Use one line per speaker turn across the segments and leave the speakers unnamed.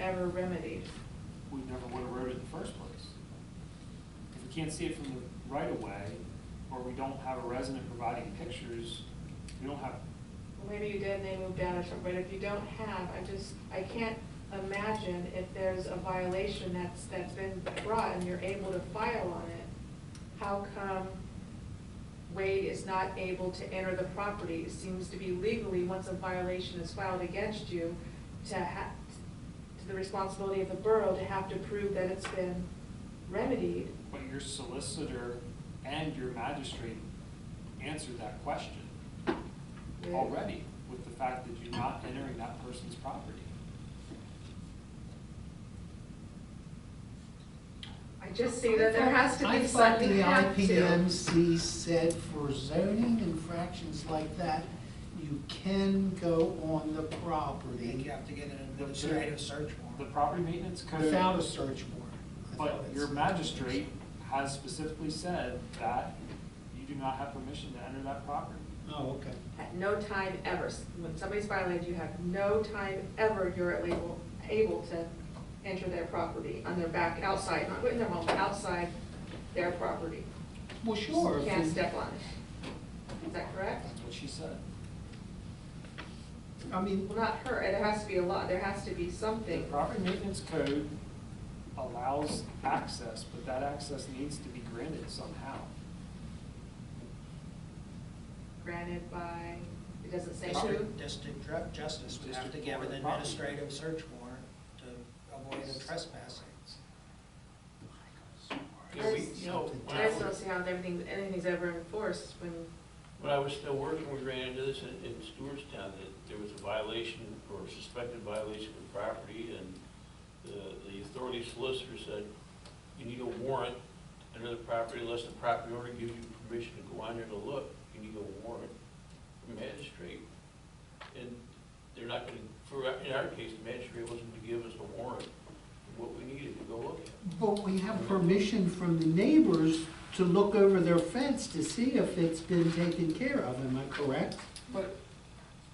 ever remedied.
we never would have wrote it in the first place. If we can't see it from the right of way, or we don't have a resident providing pictures, we don't have,
Well, Maybe you did, and they moved out or something, but if you don't have, I just, I can't imagine if there's a violation that's, that's been brought and you're able to file on it, how come Wade is not able to enter the property? It seems to be legally, once a violation is filed against you, to ha, to the responsibility of the borough to have to prove that it's been remedied.
but your solicitor and your magistrate answered that question
Yeah.
already with the fact that you're not entering that person's property.
I just see that there has to
I
be
thought
something
the
you have to.
IPMC said for zoning infractions like that, you can go on the
think
property
you have to get an administrative search
The
warrant.
property maintenance code.
without a search warrant.
But
I thought it's-
your magistrate has specifically said that you do not have permission to enter that property.
Oh, okay.
At no time ever, when somebody's violated, you have no time ever you're able, able to enter their property on their back, outside, not in their home, outside their property.
Well,
You
sure. if
Can't
you-
step on it. Is that correct?
That's what she said.
I mean,
Well, not her, there has to be a law, there has to be
The
something.
property maintenance code allows access, but that access needs to be granted somehow.
Granted by, it doesn't say who.
District, district dru- justice would have to
District
give
court
an
of property.
administrative search warrant to avoid the trespassing.
Yeah, we, you know, when
I
I
just don't
was,
see how everything, anything's ever enforced when,
when I was still working, we ran into this in, in Stewartstown, that there was a violation or suspected violation of property, and the, the authority solicitor said, you need a warrant under the property unless the property owner gives you permission to go on there to look, you need a warrant from magistrate. And they're not gonna, for, in our case, the magistrate wasn't gonna give us a warrant, what we needed to go look at.
but we have permission from the neighbors to look over their fence to see if it's been taken care of, am I correct?
But,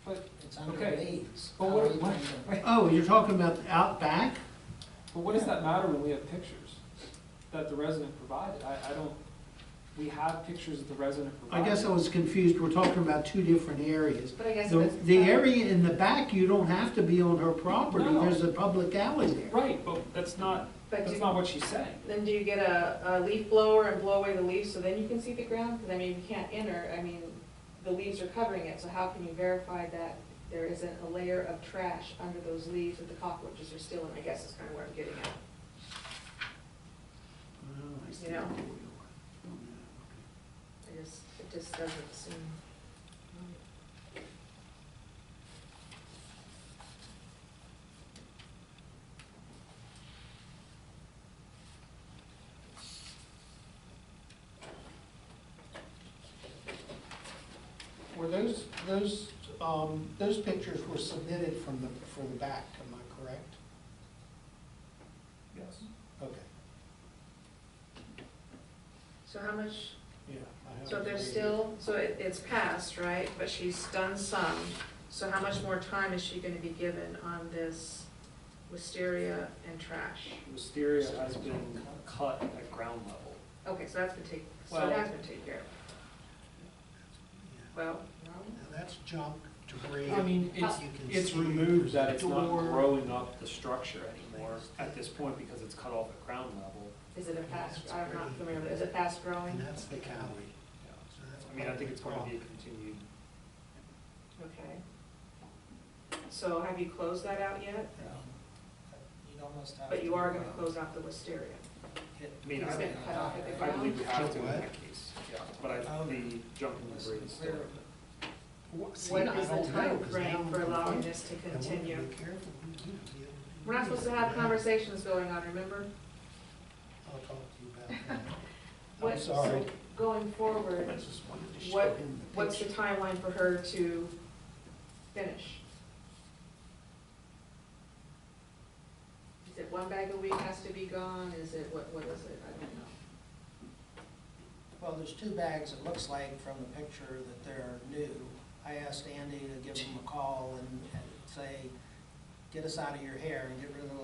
but,
It's under
Okay.
these.
But
How
what-
are you
what-
gonna-
wait.
Oh, you're talking about out back?
but what does that matter when we have pictures that the resident provided? I, I don't, we have pictures that the resident
I
provided.
guess I was confused, we're talking about two different areas.
but I guess.
The,
if it's-
the area in the back, you don't have to be on her property,
No.
there's a public alley there.
Right, but that's not,
But
that's
do-
not what she's saying.
Then do you get a, a leaf blower and blow away the leaves so then you can see the ground? Because I mean, you can't enter, I mean, the leaves are covering it, so how can you verify that there isn't a layer of trash under those leaves that the cockroaches are still in, I guess is kind of where I'm getting at.
Oh, I see.
Yeah. I just, it just doesn't seem.
Were those, those, um, those pictures were submitted from the, from the back, am I correct?
Yes.
Okay,
So how much,
yeah. I have
so
it
there's
here.
still, so it, it's passed, right? But she's done some, so how much more time is she gonna be given on this wisteria and trash?
Wisteria has been cut at ground level.
Okay, so that's been taken, so
Well-
that's been taken care of. Well,
Now,
no,
that's junk, debris.
I mean, uh,
you
it's,
can
it's
see
removed that it's not
door.
growing up the structure anymore at this point because it's cut off at ground level.
is it a fast, I'm not familiar with it, is it fast growing?
And that's the alley. So that's
I mean, I think it's going to be
probably-
a continued,
Okay. So have you closed that out yet?
You'd almost have.
But you
to,
are gonna
uh,
close out the wisteria.
get-
I mean,
It's
I-
been cut off at the
I
ground?
believe we have to in
Jump what?
that case, yeah, but I, the jumping
Listen,
debris is still.
clear.
What see,
What
I
is
don't
the
know,
time
'cause now
frame for
I'm
allowing
confused.
this to
I want to
continue?
be careful who you deal with.
We're not supposed to have conversations going on, remember?
I'll talk to you about that.
What-
I'm sorry.
so Going forward,
I just wanted to show
what,
him the
what's the
picture.
timeline for her to finish? Is it one bag a week has to be gone, is it, what, what is it, I don't know.
Well, there's two bags, it looks like from the picture that they're new. I asked Andy to give them a call and and say, get us out of your hair and get rid of the